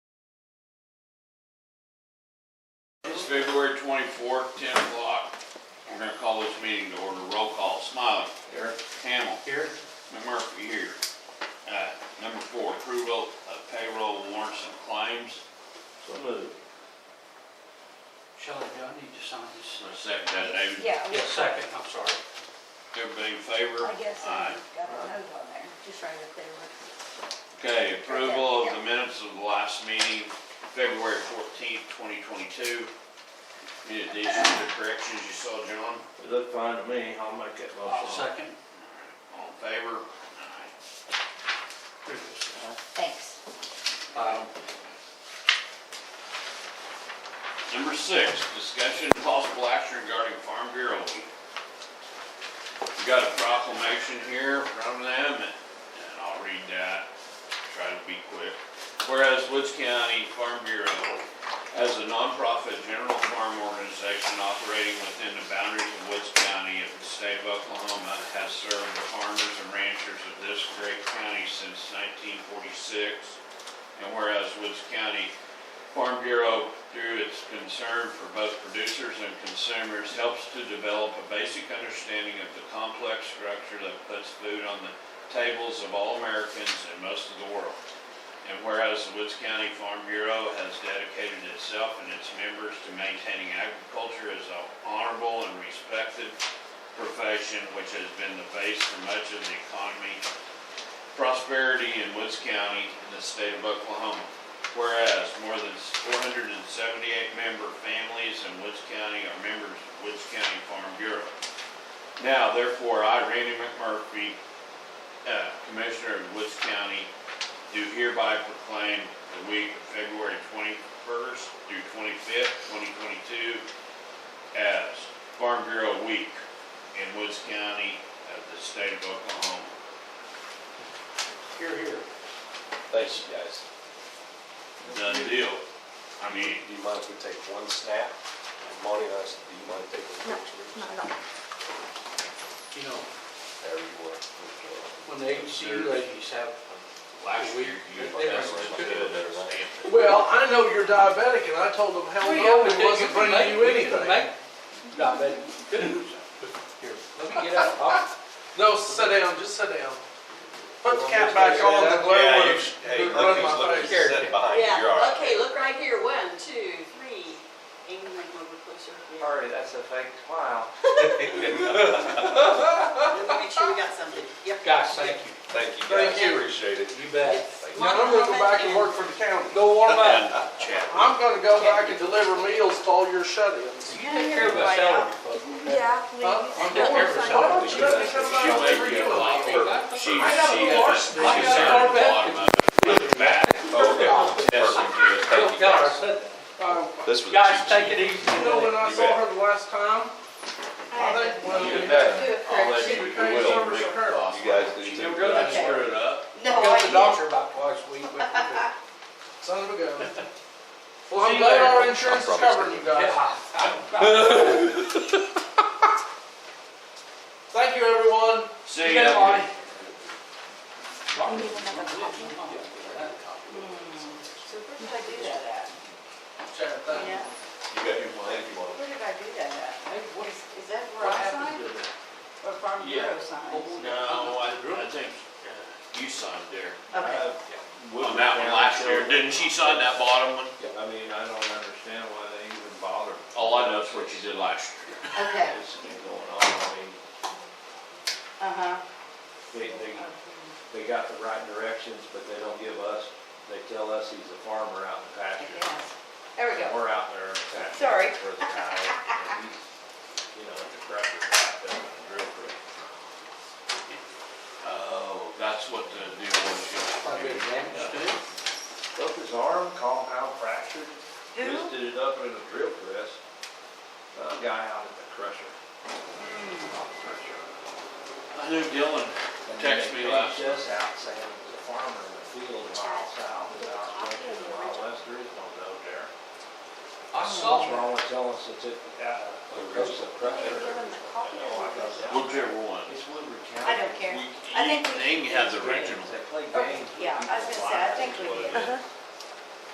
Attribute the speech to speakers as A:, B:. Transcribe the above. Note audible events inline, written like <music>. A: February twenty-fourth, ten o'clock. We're gonna call this meeting to order. Roll call. Smiley.
B: Here.
A: Hamel.
B: Here.
A: McMurphy here. Uh, number four, approval of payroll warrants and claims.
B: So moved.
C: Shelley, do I need to sign this?
A: Let's second that, David.
D: Yeah, we-
C: Yeah, second, I'm sorry.
A: Everybody in favor?
D: I guess I
A: Aye.
D: got a note on there, just right up there.
A: Okay, approval of
D: yeah.
A: the minutes of the last meeting, February fourteenth, twenty twenty-two. Any additions or corrections you saw, John?
B: It looked fine to me. I'll make that
C: I'll
B: motion.
C: second.
A: All in favor? Aye.
D: Thanks.
C: Um,
A: Number six, discussion and possible action regarding Farm Bureau Week. We got a proclamation here from them, and and I'll read that, try to be quick. Whereas Woods County Farm Bureau as a nonprofit general farm organization operating within the boundaries of Woods County of the state of Oklahoma, has served the farmers and ranchers of this great county since 1946. And whereas Woods County Farm Bureau, through its concern for both producers and consumers, helps to develop a basic understanding of the complex structure that puts food on the tables of all Americans and most of the world. And whereas the Woods County Farm Bureau has dedicated itself and its members to maintaining agriculture as an honorable and respected profession, which has been the base for much of the economy, prosperity in Woods County in the state of Oklahoma. Whereas more than 478 member families in Woods County are members of Woods County Farm Bureau. Now therefore, I, Randy McMurphy, uh, Commissioner of Woods County, do hereby proclaim the week of February 21st through 25th, 2022 as Farm Bureau Week in Woods County of the state of Oklahoma.
C: Here, here.
E: Thanks, you guys.
A: Done deal. I mean,
E: Do you mind if we take one snap? And Monty and I, said, do you mind taking a picture?
D: Not at all.
C: You know,
E: There you were.
C: when the ACU ladies have,
A: last year you
C: They were
A: that's what
E: good.
A: did that stamp.
F: Well, I know you're diabetic, and I told them how
C: Well, yeah,
F: long
C: we
F: it was
C: could
F: not bringing
C: make-
F: you
C: we could
F: anything.
C: make- Not bad. Here, let me get out. I'll-
F: No, sit down, just sit down. Put the cap back on, the glare
E: Yeah, you
F: would
E: should- hey,
F: have
E: look
F: run
E: who's
F: my
E: looking,
F: face.
E: sit behind you, you're all
G: Yeah,
E: right.
G: okay, look right here, one, two, three, and you might move it closer. Yeah.
B: Sorry, that's a fake smile.
G: Let me make sure we got something, yep.
C: Guys, thank you.
E: Thank you
F: Thank
E: guys,
F: you.
E: appreciate it.
C: You bet.
G: It's
F: Now, I'm gonna go back and work for the county. Go warm
E: <laughs>
A: Done, Chad.
F: I'm gonna go back and deliver meals to all your shut-ins.
C: You take care of us, Ellery, folks.
D: Yeah,
F: Huh?
C: I'm getting nervous.
F: Why don't you let me come out
A: She'll
F: and
A: make
F: deliver
A: you
F: you
A: a
F: a
A: lot
F: meal?
A: for, she, she,
F: I got a
A: she's
F: varsity. I got a
A: down at the bottom
F: varsity.
A: of it, with the back,
E: Oh, okay.
A: Yes,
E: Perfect.
A: you
C: Tell
E: Thank you
C: her I
E: guys.
C: said that.
F: Um,
E: This was.
C: Guys, take it easy.
F: You know, when I
E: You
F: saw
E: bet.
F: her the last time, I
D: I
F: think, well,
A: did.
F: you
A: You
F: know,
A: bet.
D: do it
A: I'll let
D: first.
A: you, you
F: Craig
A: will.
F: Summers and her.
E: You guys do
C: She
E: too.
C: never go down
A: Screw it up.
D: No,
C: Go to the
D: I
C: doctor about twice
D: <laughs>
C: a week. we- we- we-
F: son of a gun. Well,
C: See
F: I'm
C: you
F: glad
C: later.
F: our insurance is covering you guys.
C: Yeah, I- I-
F: Thank you, everyone.
A: See
C: You know,
A: ya.
C: I-
D: did. You need another copy?
G: So where did I do that at?
F: Sharon, thank you.
G: Yeah,
E: You got your mind, you want
G: where did I do that at?
C: Hey, what-
G: Is, is that where
C: What
G: I
C: happened
G: signed
C: to that?
G: or Farm
A: Yeah.
G: Bureau signed?
A: No, I, I think uh, you signed there.
G: Okay,
B: Uh,
A: On that one last year, didn't she sign that bottom one?
B: I mean, I don't understand why they even bother.
A: All I know is what you did last year.
G: okay,
B: This thing going on, I mean,
G: uh-huh.
B: they, they, they got the right directions, but they don't give us, they tell us he's a farmer out in the pasture.
G: Yes. There we
B: And
G: go.
B: We're out there in the pasture.
G: Sorry.
B: For the cow, and he's, you know, the crusher's out there, and the drill crew.
A: Oh, that's what the deal was.
C: Probably damaged to it.
B: Broke his arm, compound fractured,
G: Who?
B: twisted it up in a drill press. A guy out at the crusher.
A: I knew Dylan texted me last
B: And they changed us out saying it was a farmer in the field a mile south, of our country, a mile west, there is no road there.
C: I
B: What's
A: Oh.
C: saw.
B: wrong with telling us it's, a- uh, a crusher, a crusher?
D: Give him the copy.
B: I
E: Oh,
B: know, I got that.
A: Whichever one.
B: It's Woodward County.
D: I don't care.
A: We-
D: I think we-
A: They can have the original.
B: They play
D: Oh,
B: games. with
D: yeah, I was
B: people's
D: gonna say, I
B: lives,
D: think
B: is
D: we
B: what it
D: did.
B: is.